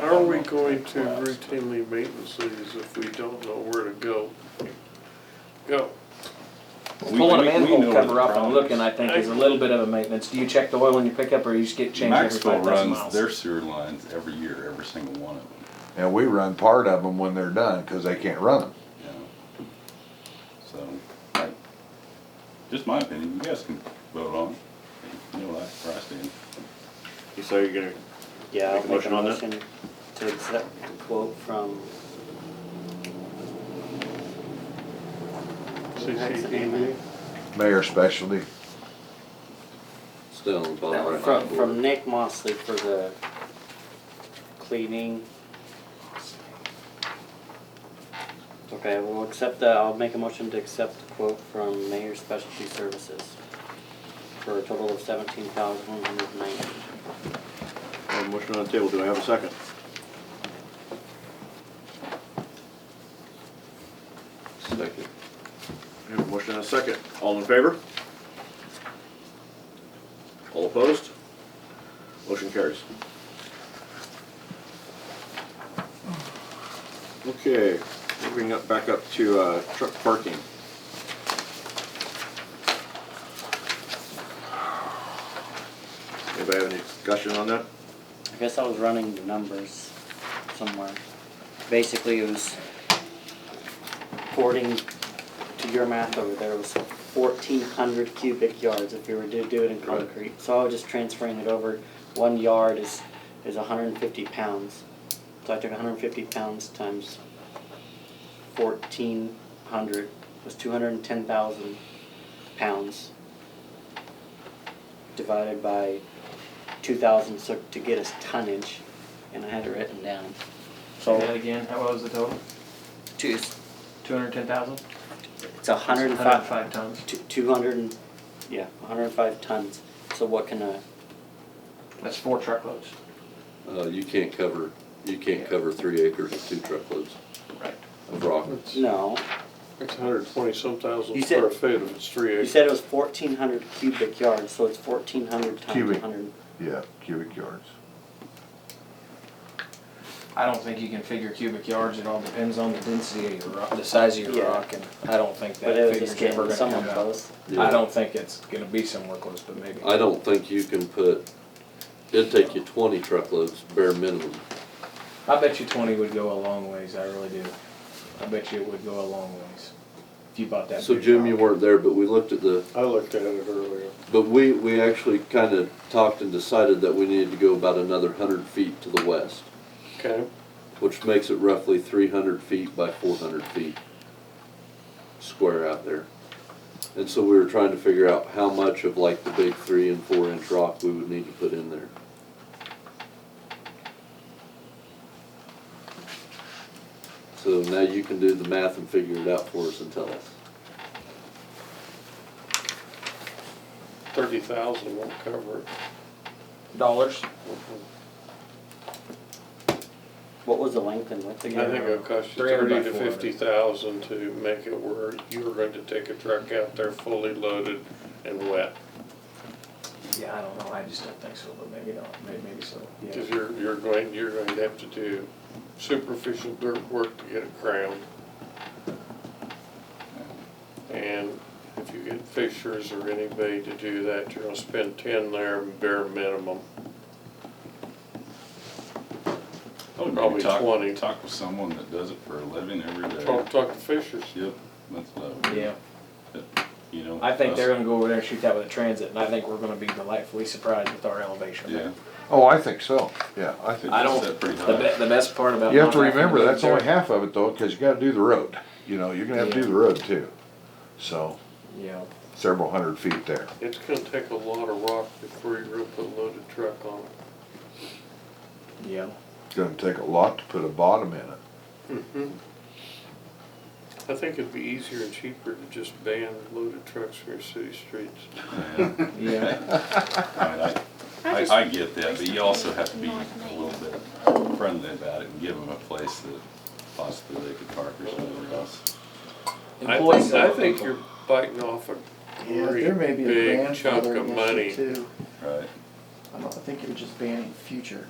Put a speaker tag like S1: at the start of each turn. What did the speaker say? S1: How are we going to routinely maintenance these if we don't know where to go? Go.
S2: Pulling a manhole cover up
S3: off
S2: and looking, I think, is a little bit of a maintenance. Do you check the oil when you pick up, or you just get changed every
S3: Maxville
S2: five
S3: runs
S2: thousand miles?
S3: their sewer lines every year, every single one of them,
S4: And we run part of them when they're done, cause they can't run them.
S3: you know. So, I- just my opinion, you guys can vote on, it. you know, like, where I stand.
S5: You say you're gonna,
S6: Yeah,
S5: Make
S6: I'll
S5: a
S6: make a
S5: motion on that?
S6: motion to accept the quote from.
S1: CCTV.
S4: Mayor specialty,
S7: Still on the bottom right
S6: From, from Nick Mosley for the cleaning. Okay, we'll accept the, I'll make a motion to accept the quote from Mayor Specialty Services for a total of seventeen thousand one hundred ninety.
S5: I have a motion on the table, do I have a second?
S7: Second.
S5: I have a motion and a second, all in favor? All opposed? Motion carries. Okay, moving up, back up to, uh, truck parking. Anybody have any discussion on that?
S6: I guess I was running the numbers somewhere. Basically, it was according to your math over there, it was fourteen hundred cubic yards if you were to do it in
S5: Right.
S6: concrete. So I was just transferring it over, one yard is, is hundred and fifty pounds. So I took hundred and fifty pounds times fourteen hundred, was two hundred and ten thousand pounds. Divided by two thousand so to get us tonnage, and I had it written down.
S2: Say
S6: So
S2: that again, how what was the total?
S6: two, it's,
S2: Two hundred and ten thousand?
S6: it's a hundred and
S2: Hundred and
S6: five,
S2: five tons.
S6: two, two hundred and, yeah, hundred and five tons. So what can a,
S2: That's four truckloads.
S7: Uh, you can't cover, you can't cover three acres of two truckloads
S2: Right.
S7: of rock.
S1: It's
S6: no,
S1: it's hundred twenty some thousand
S6: You said-
S1: square feet if it's three
S6: you
S1: acres.
S6: said it was fourteen hundred cubic yards, so it's fourteen hundred times
S4: Cubic.
S6: a hundred.
S4: yeah, cubic yards.
S2: I don't think you can figure cubic yards, it all depends on the density of your rock, the size of
S6: Yeah.
S2: your rock, and I don't think
S6: But
S2: that
S6: it was just
S2: figure's ever
S6: getting
S2: gonna
S6: somewhere
S2: come out.
S6: close.
S7: Yeah.
S2: I don't think it's gonna be somewhere close, but maybe.
S7: I don't think you can put, it'd take you twenty truckloads, bare minimum.
S2: I bet you twenty would go a long ways, I really do. I bet you it would go a long ways. If you bought that.
S7: So
S2: big
S7: Jim, you
S2: rock.
S7: weren't there, but we looked at the,
S1: I looked at it earlier.
S7: but we, we actually kinda talked and decided that we needed to go about another hundred feet to the west,
S1: Okay,
S7: which makes it roughly three hundred feet by four hundred feet square out there. And so we were trying to figure out how much of like the big three and four inch rock we would need to put in there. So now you can do the math and figure it out for us and tell us.
S1: thirty thousand won't cover it.
S2: Dollars?
S6: What was the length and width
S1: I
S6: again?
S1: think it'll cost you
S2: 300 by
S1: thirty to
S2: 400.
S1: fifty thousand to make it where you're going to take a truck out there fully loaded and wet.
S2: Yeah, I don't know, I just don't think so, but maybe not, maybe, maybe so, yeah.
S1: Cause you're, you're going, you're going to have to do superficial dirt work to get it crowned. And if you get fishers or anybody to do that, you're gonna spend ten there bare minimum.
S3: I would
S1: Probably
S3: maybe talk-
S1: 20.
S3: Talk with someone that does it for a living every day.
S1: Talk, talk to fishers.
S3: Yep, that's what I would do.
S2: Yeah,
S3: You know.
S2: I think
S3: us-
S2: they're gonna go over there and shoot that with a transit, and I think we're gonna be delightfully surprised with our elevation.
S3: Yeah.
S4: Oh, I think so, yeah, I think.
S2: I don't,
S3: Set pretty
S2: the
S3: high.
S2: be, the best part about.
S4: You have to
S2: not having
S4: remember,
S2: move
S4: that's only
S2: dirt-
S4: half of it though, cause you gotta do the road, you know, you're gonna have to do
S2: Yeah.
S4: the road too. So,
S2: Yeah,
S4: several hundred feet there.
S1: It's gonna take a lot of rock before you're gonna put a loaded truck on
S2: yeah,
S4: It's gonna take a lot to put a bottom in it.
S1: it. I think it'd be easier and cheaper to just ban loaded trucks from your city streets.
S3: Yeah.
S2: yeah,
S3: I mean, I- I, I get that, but you also have to be a little bit friendly about it and give them a place that possibly they could park or somewhere else.
S1: I
S2: Employees
S1: think, I
S2: are
S1: think
S2: people.
S1: you're biting off a
S8: Yeah, there may
S1: very
S8: be a
S1: big chunk
S8: grandfather
S1: of
S8: in issue
S1: money.
S8: too.
S3: Right.
S8: I don't I think you're just banning future.